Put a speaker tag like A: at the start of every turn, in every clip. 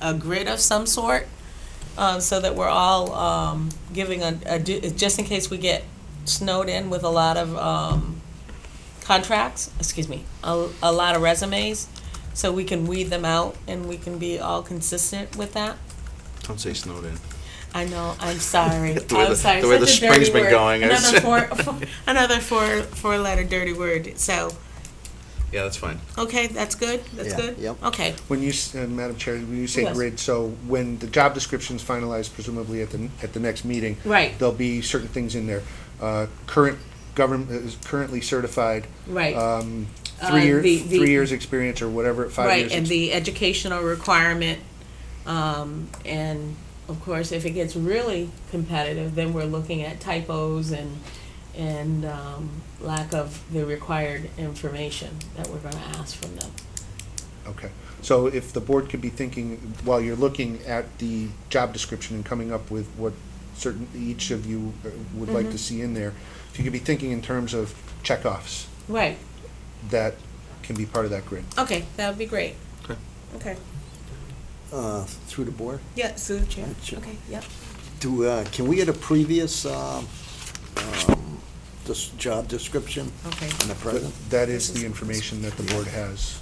A: a grid of some sort, um, so that we're all, um, giving a, a du- just in case we get snowed in with a lot of, um, contracts, excuse me, a, a lot of resumes, so we can weed them out and we can be all consistent with that.
B: Don't say Snowden.
A: I know, I'm sorry.
B: The way
A: I'm
B: the-
A: sorry.
B: the way the
A: Such a dirty
B: spring's been
A: word.
B: going is-
A: Another four, four, another four, four letter dirty word. So,
B: Yeah, that's fine.
A: okay, that's good? That's
C: Yeah,
A: good?
C: yep.
A: Okay,
D: When you, s- uh, Madam Chair, when you say
A: Yes.
D: grid, so when the job description's finalized presumably at the, at the next meeting,
A: right,
D: there'll be certain things in there. Uh, Current government, is currently certified,
A: right,
D: um,
A: Uh,
D: three year,
A: the- the-
D: three years experience or whatever, five
A: right.
D: years.
A: And
D: ex-
A: the educational requirement, um, and of course, if it gets really competitive, then we're looking at typos and, and, um, lack of the required information that we're gonna ask from them.
D: Okay, so if the board could be thinking, while you're looking at the job description and coming up with what certain, each of you uh, would like to
A: Mm-hmm.
D: see in there, if you could be thinking in terms of checkoffs
A: Right,
D: that can be part of that grid.
A: okay, that would be great.
B: Okay.
A: Okay,
C: uh, through the board.
A: yeah, so, Chair,
C: Sure.
A: okay, yep.
C: Do, uh, can we get a previous, um, um, this job description
A: Okay.
C: in the
D: Th-
C: present?
D: That is the information that the board has.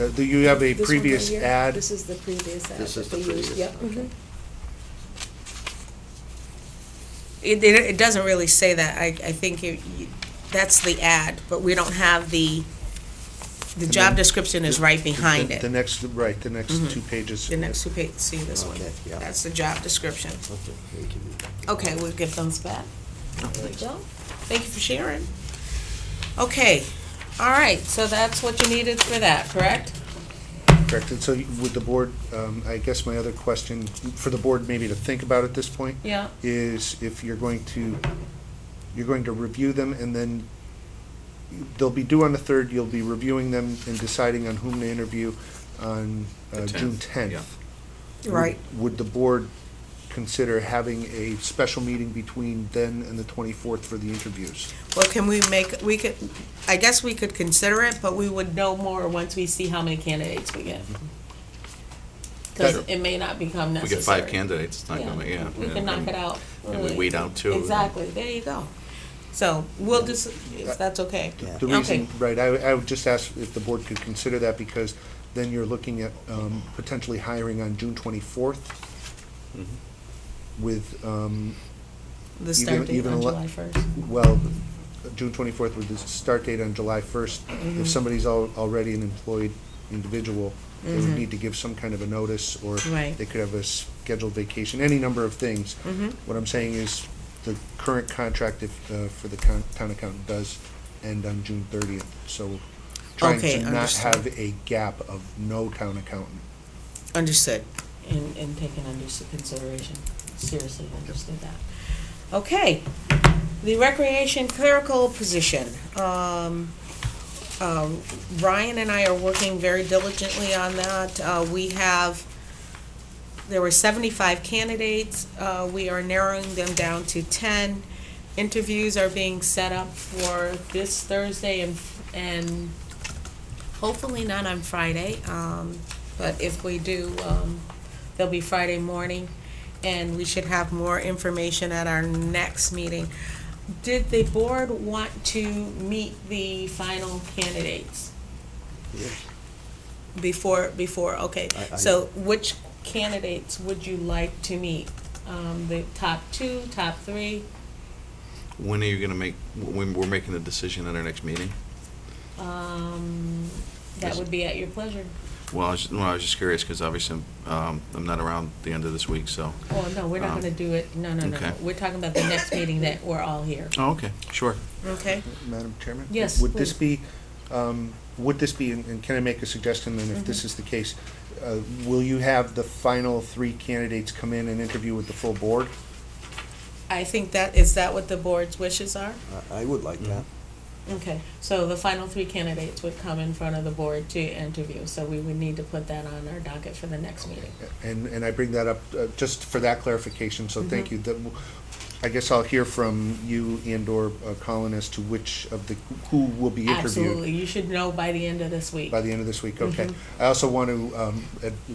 D: Uh, Do you have a
E: This one right
D: previous
E: here?
D: ad?
E: This is the previous ad.
C: This is
E: that
C: the
E: they used.
C: previous,
E: Yep.
C: okay.
A: It, it, it doesn't really say that, I, I think it, you- that's the ad, but we don't have the, the
D: And
A: job
D: then-
A: description is right behind
D: The- The
A: it.
D: next, right, the next
A: Mhm.
D: two pages.
A: The next two pages, see
B: Oh,
A: this one,
C: Okay, yeah.
A: that's the job description.
C: Okay, we can do that.
A: Okay, we'll give those back.
B: Oh,
A: There you go. Thank you for sharing. Okay, all right, so that's what you needed for that, correct?
D: Correct, and so you- would the board, um, I guess my other question, for the board maybe to think about at this point,
A: Yeah.
D: is if you're going to, you're going to review them and then they'll be due on the third, you'll be reviewing them and deciding on whom to interview on uh,
B: The
D: June
B: 10th,
D: tenth.
B: yeah.
A: Right.
D: Would the board consider having a special meeting between then and the twenty-fourth for the interviews?
A: Well, can we make, we could, I guess we could consider it, but we would know more once we see how many candidates we get. Because
D: Sure.
A: it may not become
B: If we
A: necessary.
B: get five candidates, it's not gonna, yeah. Um,
A: We can
B: and-
A: knock it out.
B: And we
A: early.
B: weed out two.
A: Exactly, there you go. So we'll just, if that's okay.
C: Yeah.
D: The
A: Okay.
D: reason, right, I, I would just ask if the board could consider that, because then you're looking at, um, potentially hiring on June twenty-fourth
B: Mhm.
D: with, um,
A: The start date
D: even
A: on
D: le-
A: July first.
D: well, June twenty-fourth with the start date on July first.
A: Mm-hmm.
D: If somebody's al- already an employed individual, they would
A: Mhm.
D: need to give some kind of a notice, or
A: Right.
D: they could have a scheduled vacation, any number of things.
A: Mm-hmm,
D: What I'm saying is, the current contract if, uh, for the con- town accountant does end on June thirtieth, so trying
A: Okay,
D: to not
A: understood.
D: have a gap of no town accountant.
A: understood. And, and taken under s- consideration, seriously understood that. Okay, the recreation clerical position. Um, um, Ryan and I are working very diligently on that. Uh, we have, there were seventy-five candidates. Uh, we are narrowing them down to ten. Interviews are being set up for this Thursday and, and hopefully not on Friday. Um, but if we do, um, they'll be Friday morning. And we should have more information at our next meeting. Did the board want to meet the final candidates
C: Yes.
A: before, before, okay.
C: I- I-
A: So which candidates would you like to meet? Um, the top two, top three?
B: When are you gonna make, when we're making the decision at our next meeting?
A: Um, that would be at your pleasure.
B: Well, I was, well, I was just curious, because obviously, um, I'm not around the end of this week, so.
A: Oh, no, we're not
B: Um,
A: gonna do it, no, no, no, no.
B: okay.
A: We're talking about the next meeting that we're all here,
B: Oh, okay, sure.
A: okay?
D: Madam Chairman?
A: Yes,
D: Would this
A: please.
D: be, um, would this be, and and can I make a suggestion then if
A: Mm-hmm.
D: this is the case? Uh, will you have the final three candidates come in and interview with the full board?
A: I think that, is that what the board's wishes are?
C: I, I would like that.
A: Okay, so the final three candidates would come in front of the board to interview, so we would need to put that on our docket for the next meeting.
D: And, and I bring that up uh, just for that clarification, so thank
A: Mm-hmm.
D: you. That w- I guess I'll hear from you and/or uh, Colin as to which of the, who will be interviewed
A: Absolutely, you should know by the end of this week.
D: by the end of this week, okay?
A: Mhm.
D: I also want to, um, ad-